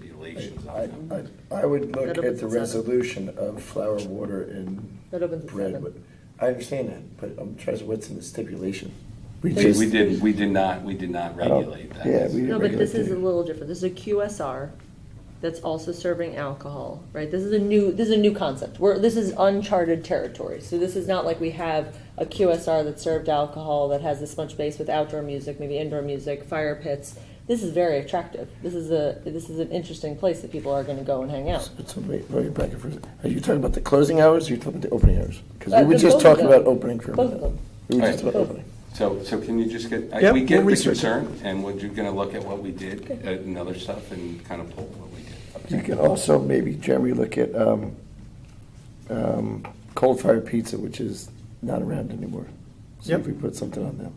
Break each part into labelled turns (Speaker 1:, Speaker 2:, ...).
Speaker 1: stipulations
Speaker 2: I,
Speaker 1: on them.
Speaker 2: I- I would look
Speaker 3: That
Speaker 2: at
Speaker 3: opens
Speaker 2: the
Speaker 3: at seven.
Speaker 2: resolution of flour, water, and
Speaker 3: That opens at
Speaker 2: bread.
Speaker 3: seven.
Speaker 2: I understand that, but I'm trying to, what's in the stipulation?
Speaker 1: We,
Speaker 2: just- Oh,
Speaker 1: we did, we did not, we did not regulate that.
Speaker 2: yeah, we-
Speaker 3: No, but this is a
Speaker 2: Regulatory.
Speaker 3: little different. This is a QSR that's also serving alcohol, right? This is a new, this is a new concept. We're, this is uncharted territory. So this is not like we have a QSR that served alcohol that has this much base with outdoor music, maybe indoor music, fire pits. This is very attractive. This is a, this is an interesting place that people are gonna go and hang out.
Speaker 2: So wait, wait, back up for a second. Are you talking about the closing hours, or are you talking about the opening hours? Because
Speaker 3: Uh,
Speaker 2: we were
Speaker 3: the-
Speaker 2: just
Speaker 3: both of
Speaker 2: talking
Speaker 3: them.
Speaker 2: about opening for a
Speaker 3: Both of
Speaker 2: minute.
Speaker 3: them.
Speaker 2: We were just
Speaker 1: All right.
Speaker 2: about opening.
Speaker 1: So, so can you just get, I-
Speaker 2: Yep,
Speaker 1: we get
Speaker 2: we'll
Speaker 1: the
Speaker 2: research it.
Speaker 1: concern, and we're just gonna look at what we did, uh, and other stuff, and kind of pull what we did.
Speaker 2: You could also maybe, Jeremy, look at um, um, Cold Fire Pizza, which is not around anymore. See if
Speaker 4: Yep.
Speaker 2: we put something on them.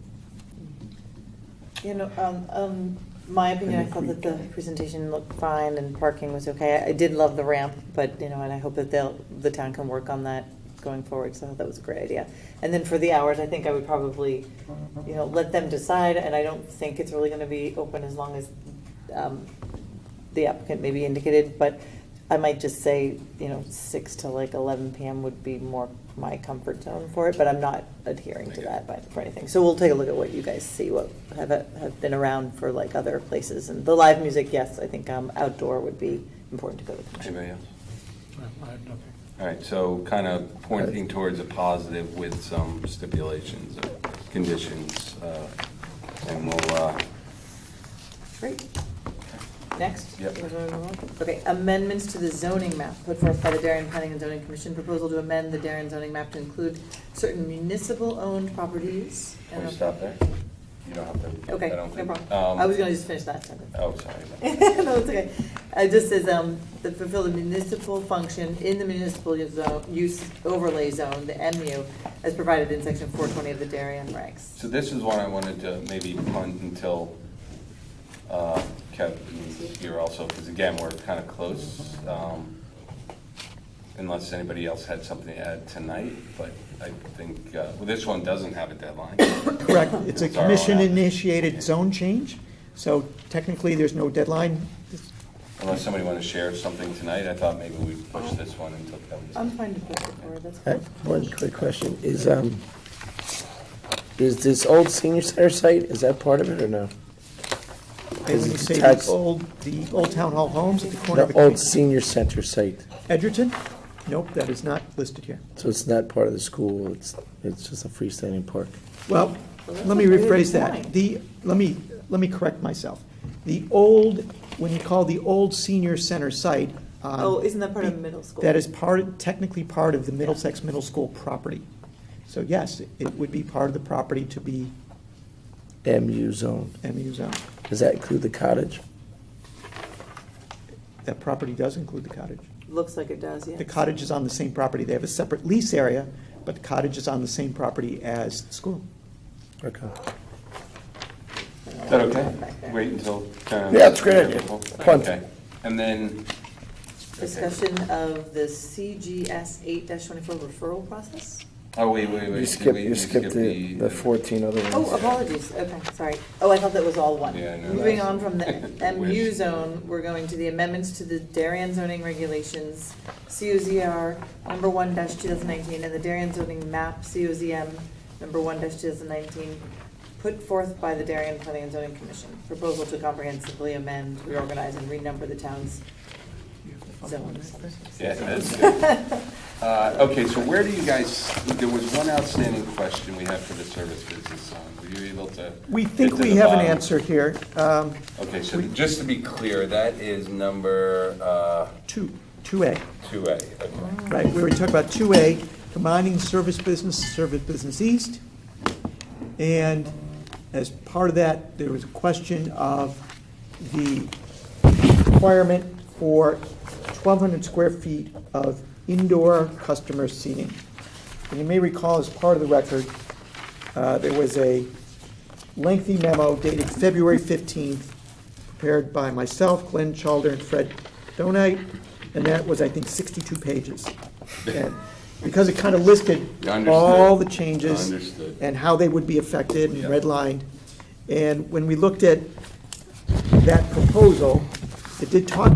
Speaker 5: You know, um, um, my opinion, I
Speaker 2: And if
Speaker 5: thought
Speaker 2: we-
Speaker 5: that the presentation looked fine and parking was okay. I did love the ramp, but, you know, and I hope that they'll, the town can work on that going forward, so I thought that was a great idea. And then for the hours, I think I would probably,
Speaker 4: Mm-hmm.
Speaker 5: you know, let them decide, and I don't think it's really gonna be open as long as, um, the applicant maybe indicated, but I might just say, you know, six to like eleven PM would be more my comfort zone for it, but I'm not adhering to that by, for anything. So we'll take a look at what you guys see, what have, have been around for like other places. And the live music, yes, I think um, outdoor would be important to go to. concerts.
Speaker 1: Anybody else?
Speaker 4: I have nothing.
Speaker 1: All right, so kind of pointing towards a positive with some stipulations or conditions, uh, and we'll, uh,
Speaker 5: Great. Next?
Speaker 1: Yep.
Speaker 5: Okay, amendments to the zoning map put forth by the Darien Planning and Zoning Commission. Proposal to amend the Darien zoning map to include certain municipal-owned properties.
Speaker 1: can we stop there? You don't have to.
Speaker 5: Okay,
Speaker 1: I don't
Speaker 5: no
Speaker 1: think-
Speaker 5: problem. I
Speaker 1: um,
Speaker 5: was gonna just finish that sentence.
Speaker 1: Oh, sorry.
Speaker 5: No, it's okay. It just says, um, that fulfill the municipal function in the municipal use zone- use overlay zone, the MU, as provided in section four twenty of the Darien regs.
Speaker 1: So this is one I wanted to maybe punt until uh, Kevin's here also, because again, we're kind of close. um, Unless anybody else had something to add tonight, but I think, uh, well, this one doesn't have a deadline.
Speaker 4: Correct, it's a
Speaker 1: It's our own app.
Speaker 4: commission-initiated zone change, so technically, there's no deadline.
Speaker 1: Unless somebody wanted to share something tonight, I thought maybe we'd push this one until Kevin's.
Speaker 5: I'm fine to put it forward, that's
Speaker 2: I
Speaker 5: fine.
Speaker 2: have One quick question, is, um, is this old senior center site, is that part of it or no?
Speaker 4: And When you say the
Speaker 2: Tax-
Speaker 4: old, the old town hall homes at the corner
Speaker 2: The
Speaker 4: of
Speaker 2: old
Speaker 4: Ed-
Speaker 2: senior center site,
Speaker 4: Edgerton? Nope, that is not listed here.
Speaker 2: so it's not part of the school, it's, it's just a freestanding park.
Speaker 4: Well,
Speaker 5: that's
Speaker 4: let me
Speaker 5: a really good
Speaker 4: rephrase that.
Speaker 5: point.
Speaker 4: The, let me, let me correct myself. The old, when you call the old senior center site. um,
Speaker 5: Oh, isn't that part of middle school?
Speaker 4: That is part, technically part of the Middlesex Middle School property. So yes, it would be part of the property to be
Speaker 2: MU zone,
Speaker 4: MU zone.
Speaker 2: does that include the cottage?
Speaker 4: That property does include the cottage.
Speaker 5: Looks like it does, yeah.
Speaker 4: The cottage is on the same property. They have a separate lease area, but the cottage is on the same property as the school.
Speaker 2: Okay.
Speaker 1: Is that okay? Wait until. Karen-
Speaker 2: Yeah, it's a great idea. Punt.
Speaker 1: Okay. And then.
Speaker 5: Discussion of the CGS eight twenty-four referral process?
Speaker 1: Oh, wait, wait, wait.
Speaker 2: You
Speaker 1: did
Speaker 2: skipped,
Speaker 1: we-
Speaker 2: you
Speaker 1: we
Speaker 2: skipped
Speaker 1: skip
Speaker 2: the, the fourteen other ones.
Speaker 5: Oh, apologies, okay, sorry. Oh, I thought that was all one.
Speaker 1: Yeah, I know.
Speaker 5: Moving on from the MU
Speaker 1: Wish.
Speaker 5: zone, we're going to the amendments to the Darien zoning regulations, COZR number one two thousand nineteen, and the Darien zoning map, COZM number one two thousand nineteen, put forth by the Darien Planning and Zoning Commission. Proposal to comprehensively amend, reorganize, and renumber the town's zones.
Speaker 1: Yeah, that's good. Uh, Okay, so where do you guys, there was one outstanding question we had for the service business zone. Were you able to?
Speaker 4: We
Speaker 1: get
Speaker 4: think
Speaker 1: to
Speaker 4: we
Speaker 1: the
Speaker 4: have an
Speaker 1: bottom?
Speaker 4: answer here. Um,
Speaker 1: Okay, so just to be clear, that is number uh,
Speaker 4: Two, two A.
Speaker 1: 2A. Okay.
Speaker 4: Right, we were talking about 2A, combining service business, service business east. And as part of that, there was a question of the requirement for 1,200 square feet of indoor customer seating. And you may recall, as part of the record, uh, there was a lengthy memo dated February 15th, prepared by myself, Glenn Chalder, and Fred Donite, and that was, I think, 62 pages. And Because it kind of listed
Speaker 1: Understood.
Speaker 4: all the changes.
Speaker 1: Understood.
Speaker 4: And how they would be affected and
Speaker 1: Yeah.
Speaker 4: redlined. And when we looked at that proposal, it did talk